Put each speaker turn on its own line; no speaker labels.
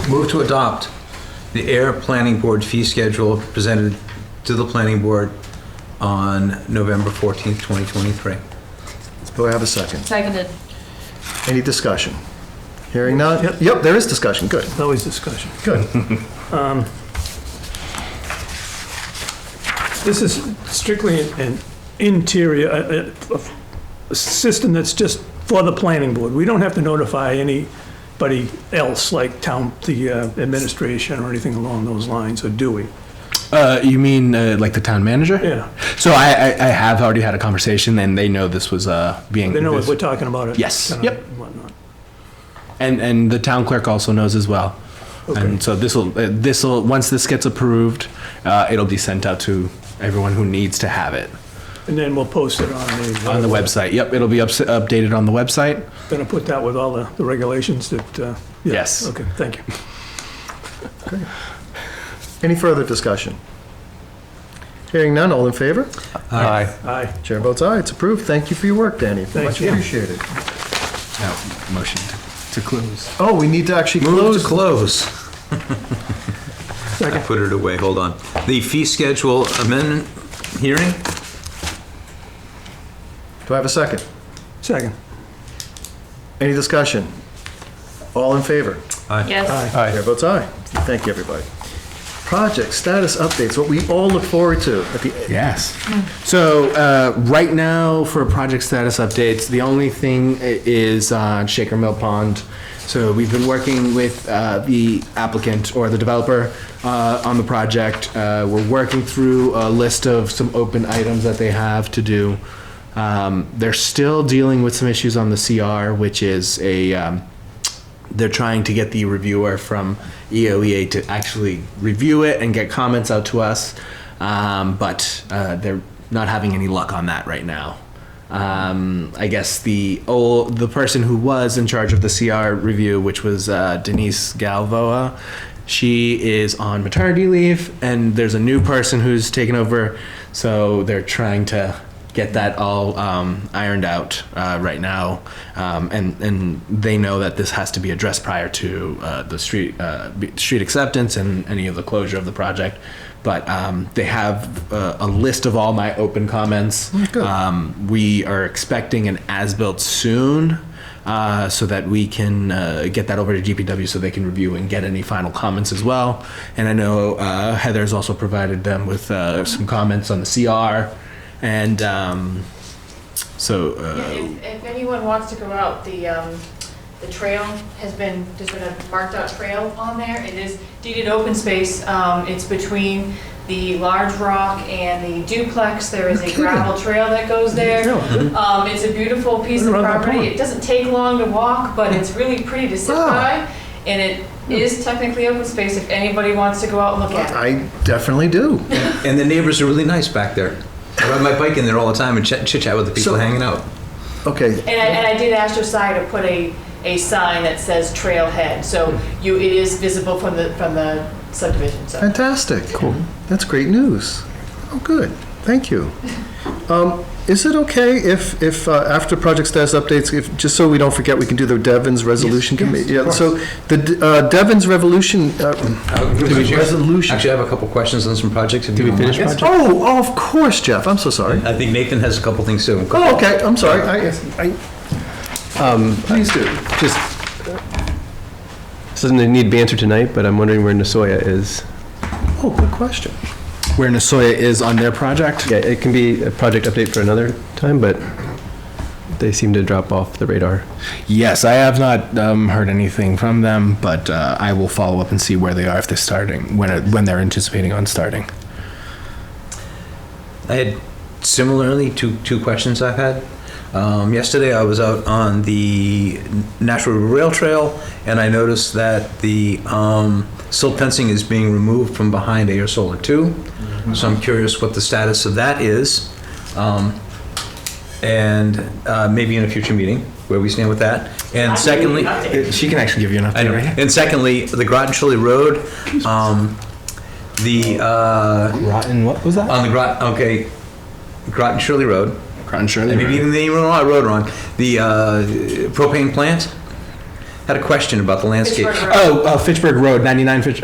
Move to adopt the Air Planning Board fee schedule presented to the planning board on November 14th, 2023.
Do I have a second?
Seconded.
Any discussion? Hearing none? Yep, Yep, there is discussion, good.
Always discussion. Um,
Good.
This is strictly an interior, a- a- a system that's just for the planning board. We don't have to notify anybody else, like town, the uh, administration or anything along those lines, or do we?
Uh, you mean uh, like the town manager?
Yeah,
So I, I, I have already had a conversation, and they know this was uh, being.
they know what
this-
we're talking about. it,
Yes,
kinda
yep.
whatnot.
and and the town clerk also knows as well.
Okay.
And so this will uh, this will once this gets approved, uh, it'll be sent out to everyone who needs to have it
And then we'll post it on the. uh,
on the website. Yep, it'll be ups- updated on the website.
Gonna put that with all the the regulations that. uh, yeah,
Yes.
Okay, thank you.
Any further discussion? Hearing none, all in favor?
Aye.
Aye.
Chair votes aye, it's approved. Thank you for your work, Danny.
Thank
Much
you.
appreciated.
Oh, motion to, to close.
Oh, we need to actually
Move to
close.
close. I put it away, hold on. The fee schedule amendment hearing?
Do I have a second?
Second.
Any discussion? All in favor?
Yes.
Aye. Chair votes aye. Thank you, everybody. Project status updates, what we all look forward to at the
Yes. So uh, right now for project status updates, the only thing i- is uh, Shaker Mill Pond. So we've been working with uh, the applicant or the developer uh, on the project. Uh, We're working through a list of some open items that they have to do. Um, They're still dealing with some issues on the CR, which is a, um, they're trying to get the reviewer from E EOEA to actually review it and get comments out to us, um, but uh, they're not having any luck on that right now. Um, I guess the old the person who was in charge of the CR review, which was uh, Denise Galvoa, she is on maternity leave, and there's a new person who's taken over, so they're trying to get that all um, ironed out uh, right now, um, and and they know that this has to be addressed prior to uh, the street uh, be- street acceptance and any of the closure of the project. But um, they have uh, a list of all my open comments. Um, we are expecting an as-built soon. Uh, so that we can uh, get that over to GPW so they can review and get any final comments as well. And I know uh, Heather's also provided them with uh, some comments on the CR and um, so uh,
If, if anyone wants to go out, the, um, the trail has been, there's been a marked out trail on there. It is deeded open space. Um, it's between the large rock and the duplex. There is a gravel trail that goes there. Um, it's a beautiful piece of
Right around that
property.
corner. Ah.
It doesn't take long to walk, but it's really pretty to sit by. And it
Hmm.
is technically open space if anybody wants to go out and look at it.
I definitely do.
And the neighbors are really nice back there. I ride my bike in there all the time and chit chit chat with the people
So-
hanging out.
Okay,
And I, and I did ask your side to put a, a sign that says trailhead, so you, it is visible from the, from the subdivision, so.
fantastic. Cool. That's great news. Oh, good, thank you. Um, Is it okay if, if, uh, after project status updates, if, just so we don't forget, we can do the Devon's resolution committee? Yeah, so the D- uh, Devon's revolution, uh, resolution.
Actually, I have a couple questions on some projects. Did
we finish
Oh, oh, of course, Jeff, I'm so sorry.
I think Nathan has a couple things too.
Oh, okay, I'm sorry, I, I, please do.
Um, Just, this doesn't need banter tonight, but I'm wondering where Nasoya is.
Oh, good question.
where Nasoya is on their project.
Yeah, it can be a project update for another time, but they seem to drop off the radar.
Yes, I have not um, heard anything from them, but uh, I will follow up and see where they are if they're starting when it, when they're anticipating on starting.
I had similarly two, two questions I've had. Um, yesterday I was out on the Natural Rail Trail and I noticed that the um, silt fencing is being removed from behind Air Solar 2. So I'm curious what the status of that is. Um, and uh, maybe in a future meeting where we stand with that. And secondly,
She can actually give you an update
I know.
right here.
And secondly, the Groton Chili Road, um, the uh,
Rotten, what was that?
on the Grot, okay, Groton Shirley Road,
Rotten Shirley.
and maybe even
Road.
the, I wrote it wrong, the uh, propane uh, plant,
had a question about the landscape.
Pittsburgh Road.
Oh, uh, Fitchburg Road, 99 Fitch,